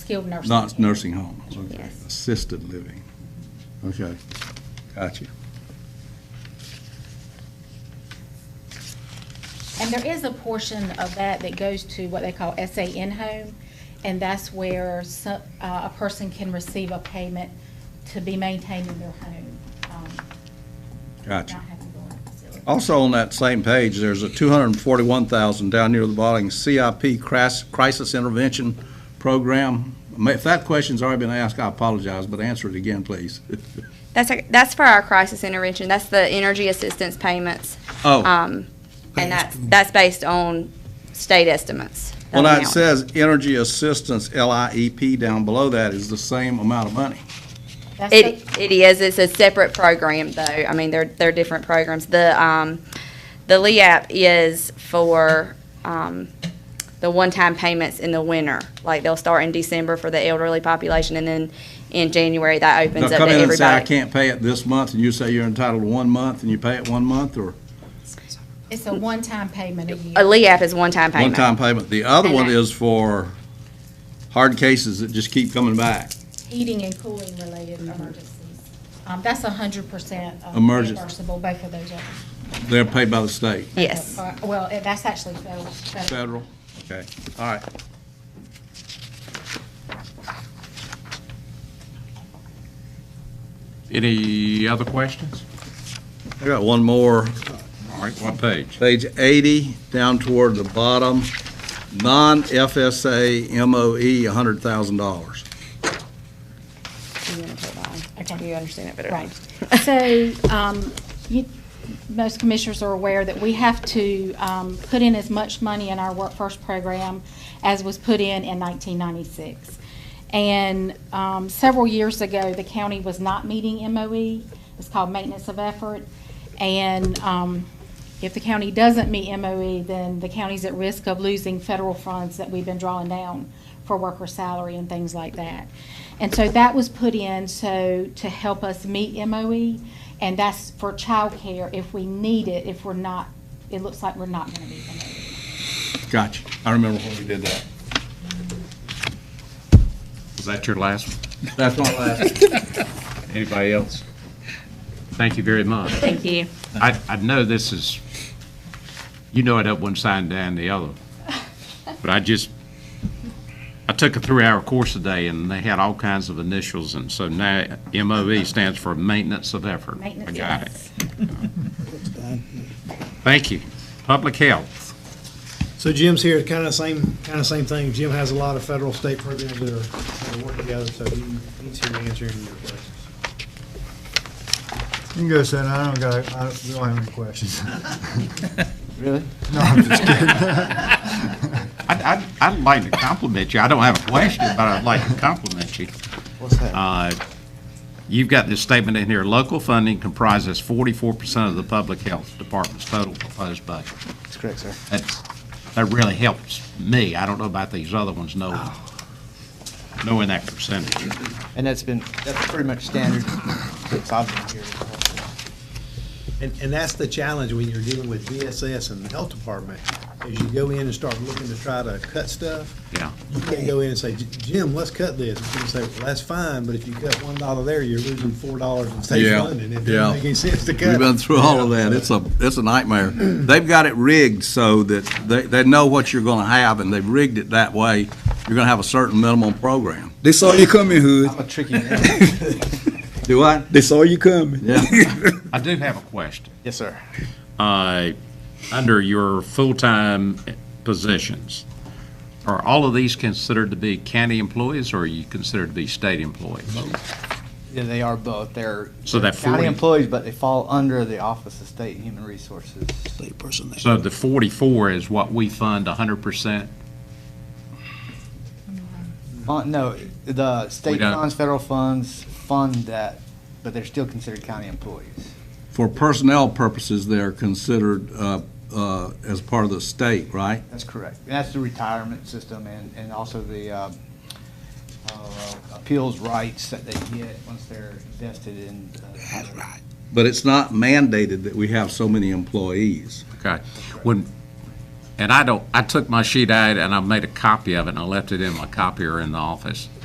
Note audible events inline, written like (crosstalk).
skilled nursing. Not care. nursing homes, okay. Yes. Assisted living, okay. Gotcha. And there is a portion of that that goes to what they call SA in-home, and that's where so- uh, a person can receive a payment to be maintained in their home. um, Gotcha. Not having to go in a facility. Oh, Also, on that same page, there's a 241,000 down near the bottom, CIP cras- Crisis Intervention Program. Ma- If that question's already been asked, I apologize, but answer it again, please. Uh, That's, a- that's for our crisis intervention. That's the energy assistance payments. Oh, Um, and that's, that's based on state estimates. of well, now it amount. says Energy Assistance, LIEP, down below that is the same amount of money. That's the- It, it is, it's a separate program though. I mean, they're, they're different programs. The, um, the LEAP is for, um, the one-time payments in the winter. Like they'll start in December for the elderly population and then in January that They'll opens up to come in and say, I everybody. can't pay it this month, and you say you're entitled to one month, and you pay it one month, or It's a one-time payment a year. A LEAP is one-time payment. one-time payment. The other And one I- is for hard cases that just keep coming back. heating and cooling related Mm-hmm. emergencies. Um, that's hundred percent uh, Emergen- reimbursable, both of those are. They're paid by the state. Yes. Uh, Well, eh, that's actually federal. federal. Federal, okay, all right. Any other questions? I got one more, All right, what page? page 80, down toward the bottom, non-FSA MOE, $100,000. Okay. You understand it better. than I Right. So, um, you, most commissioners are aware that we have to, um, put in as much money in our Work First program as was put in in nineteen ninety-six. And, um, several years ago, the county was not meeting MOE. It's called maintenance of effort. And, um, if the county doesn't meet MOE, then the county's at risk of losing federal funds that we've been drawing down for worker salary and things like that. And so that was put in so to help us meet MOE, and that's for childcare if we need it, if we're not, it looks like we're not gonna meet MOE. Gotcha, I remember when we did that. Was that your last one? That's my last. Anybody else? Thank you very much. Thank you. I, I know this is, you know it up one side and down the other, but I just, I took a three-hour course today, and they had all kinds of initials, and so now MOE stands for Maintenance of Effort. Maintenance I of got it. Thank you. Public Health. So Jim's here, kind of same, kind of same thing. Jim has a lot of federal, state programs that are, that work together, so he- he's here answering your questions. You can go, Senator. I don't got, I don't- we don't have any questions. Really? No, I'm just kidding. I'd, I'd, I'd like to compliment you. I don't have a question, but I'd like to compliment you. What's that? Uh, You've got this statement in here, local funding comprises forty-four percent of the public health department's total proposed budget. That's correct, sir. That's, that really helps me. I don't know about these other ones, knowing, knowing that percentage. And that's been, that's pretty much standard since I've been here. And, and that's the challenge when you're dealing with VSS and the health department, is you go in and start looking to try to cut stuff. Yeah. You can't go in and say, Jim, let's cut this. And you say, well, that's fine, but if you cut one dollar there, you're losing four dollars in state Yeah, funding. It yeah. doesn't make any sense to cut. We've it. been through all of Yeah, that, so- it's a, it's a nightmare. They've got it rigged so that they, they know what you're gonna have, and they've rigged it that way. You're gonna have a certain minimum program. They saw you coming, Hood. I'm a tricky man. Do what? They saw you coming. Yeah. I do have a question. Yes, sir. Uh, Under your full-time positions, are all of these considered to be county employees, or are you considered to be state employees? Yeah, they are both. They're So that county 40 employees, but they fall under the Office of State and Human Resources. State personnel. So the 44 is what we fund 100%? Uh, no, the We state don't- funds, federal funds fund that, but they're still considered county employees. (laughs) For personnel purposes, they're considered, uh, uh, as part of the state, right? That's correct. And that's the retirement system and, and also the uh, uh, appeals rights that they get once they're invested in. uh, That's right. But it's not mandated that we have so many employees. Okay. When, and I don't, I took my sheet out and I made a copy of it and I left it in my copier in the office.